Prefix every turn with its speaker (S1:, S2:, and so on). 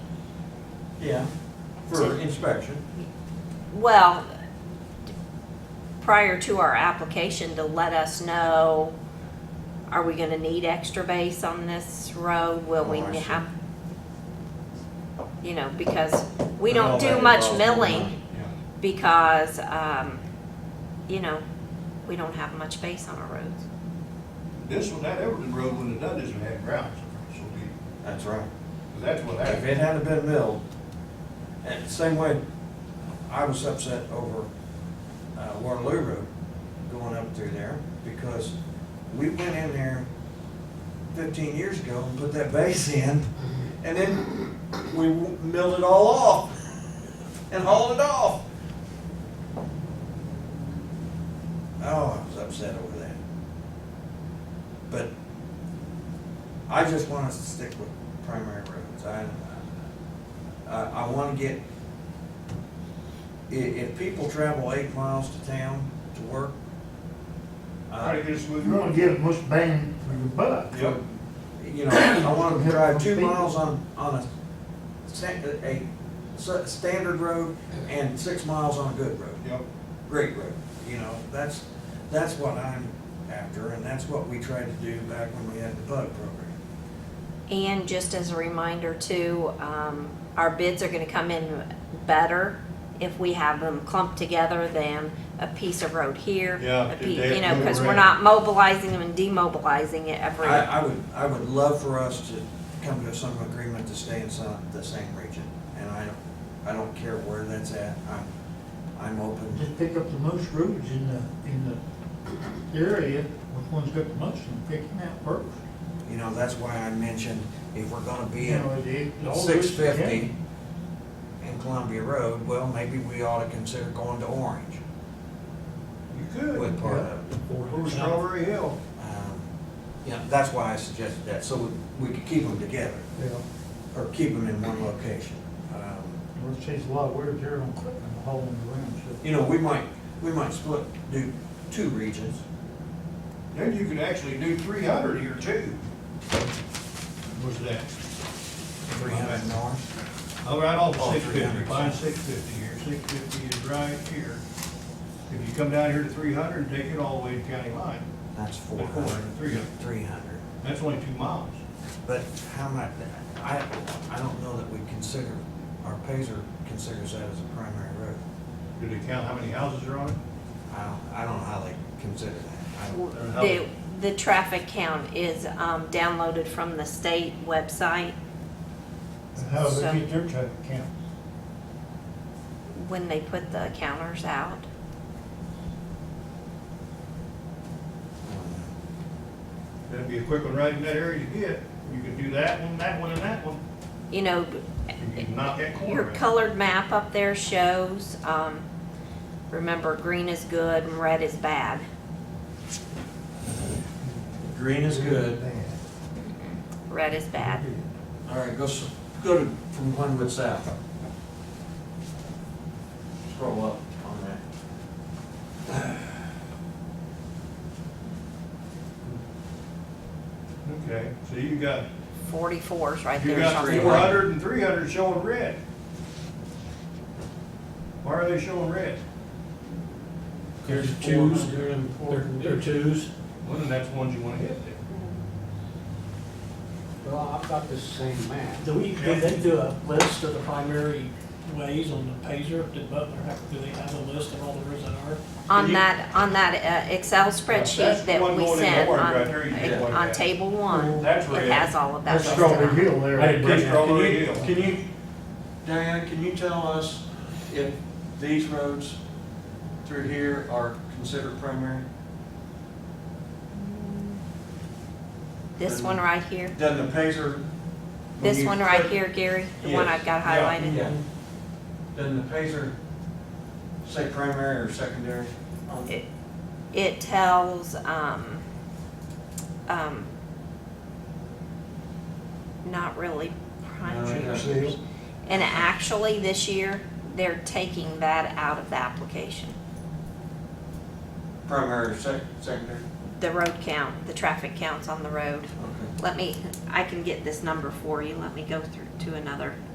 S1: Yeah, for
S2: To-
S1: inspection.
S2: Well, prior to our application, to let us know, are we gonna need extra base on this road? Will we
S1: Oh, I see.
S2: have? You know, because we
S1: And all
S2: don't do
S1: that
S2: much
S1: involves more money.
S2: milling
S1: Yeah.
S2: because, um, you know, we don't have much base on our roads.
S3: This one, that Everton Road, when it done, doesn't have grounds, so we,
S1: That's right.
S3: 'cause that's what
S1: If
S3: happened.
S1: it hadn't been milled, and same way, I was upset over uh, Waterloo Road going up through there, because we went in there fifteen years ago and put that base in, and then we w- milled it all off and hauled it off. Oh, I was upset over that. But I just want us to stick with primary roads. I, I, I wanna get, i- if people travel eight miles to town to work,
S3: Try
S1: uh,
S3: to get a smooth
S4: You wanna
S3: road.
S4: get most bang for your buck.
S3: Yep.
S1: you know, I wanna drive two miles on, on a sta- a s- standard road and six miles on a good road.
S3: Yep.
S1: great road, you know, that's, that's what I'm after, and that's what we tried to do back when we had the bug program.
S2: And just as a reminder too, um, our bids are gonna come in better if we have them clumped together than a piece of road here. a
S3: Yeah, if
S2: piece,
S3: they
S2: You know,
S3: move
S2: cause we're
S3: around.
S2: not mobilizing them and demobilizing it every,
S1: I, I would, I would love for us to come to some agreement to stay in some, the same region, and I don't, I don't care where that's at, I'm, I'm open.
S4: Just pick up the most roads in the, in the area, which one's got the most, and pick them out first.
S1: You know, that's why I mentioned, if we're gonna be
S4: You know,
S1: at
S4: it- it- all roads
S1: six fifty
S4: together.
S1: in Columbia Road, well, maybe we ought to consider going to Orange
S3: You could.
S1: with part of it.
S3: Over Strawberry Hill.
S1: Um, You know, that's why I suggested that, so we- we could keep them together,
S4: Yeah,
S1: or keep them in one location. Um,
S4: well, it saves a lot of wear and tear on equipment hauling around, so.
S1: You know, we might, we might split, do two regions.
S3: Then you could actually do three hundred here too. Where's that?
S1: Three hundred north.
S3: All right, off
S1: Oh,
S3: six fifty,
S1: 300.
S3: find six fifty here, six fifty is right here. If you come down here to three hundred, take it all the way to county line,
S1: That's four
S3: Four hundred, three
S1: hundred.
S3: hundred.
S1: Three hundred.
S3: that's only two miles.
S1: But how much, I, I don't know that we consider, our Pazer considers that as a primary road.
S3: Do they count how many houses are on it?
S1: I don't, I don't know how they consider that. I don't-
S2: the, the traffic count is, um, downloaded from the state website
S4: And How do
S2: So-
S4: they get their traffic count?
S2: when they put the counters out.
S1: I don't know.
S3: That'd be a quick one right in that area to get, you could do that one, that one, and that one,
S2: You know,
S3: you could knock that corner
S2: Your
S3: out.
S2: colored map up there shows, um, remember, green is good and red is bad.
S1: Green is good.
S2: Red is bad.
S1: All right, go, s- go to, from Glenwood South. Scroll up on that.
S3: Okay, so you got,
S2: Forty-four's right
S3: you
S2: there
S3: got
S1: three.
S3: four
S2: somewhere.
S3: hundred and three hundred showing red. Why are they showing red?
S5: There's
S4: There's
S5: twos,
S4: 400,
S5: there there-
S4: 400.
S5: there are twos.
S3: Well, then that's the ones you wanna hit there.
S6: Well, I've got this same map.
S5: Do we, do they do a list of the primary ways on the Pazer? Did Butler have, do they have a list of all the roads that are?
S2: On
S3: You-
S2: that, on that uh, Excel
S3: that's
S2: spreadsheet
S3: the
S2: that
S3: one
S2: we
S3: going in
S2: sent
S3: orange right there, you
S1: did
S2: on,
S3: one
S2: on
S3: there.
S2: table one,
S3: That's
S2: it
S3: red.
S2: has all of that.
S4: That's
S2: listed
S4: Strawberry
S2: out.
S4: Hill there.
S5: I didn't
S3: Bring
S1: Can
S3: Strawberry
S1: you,
S3: Hill.
S1: can you, Diane, can you tell us if these roads through here are considered primary?
S2: This one right here,
S1: Does the Pazer? when
S2: this
S1: you
S2: one right
S1: click-
S2: here, Gary, the one
S1: Yes.
S2: I've got
S3: Yeah.
S2: highlighted.
S1: Yeah. Does the Pazer say primary or secondary? on-
S2: It- It tells, um, um, not really
S1: No, it
S2: primary.
S1: doesn't.
S2: And actually, this year, they're taking that out of the application.
S1: Primary or sec, secondary?
S2: The road count, the traffic counts on the road.
S1: Okay.
S2: Let me, I can get this number for you. Let me go through to another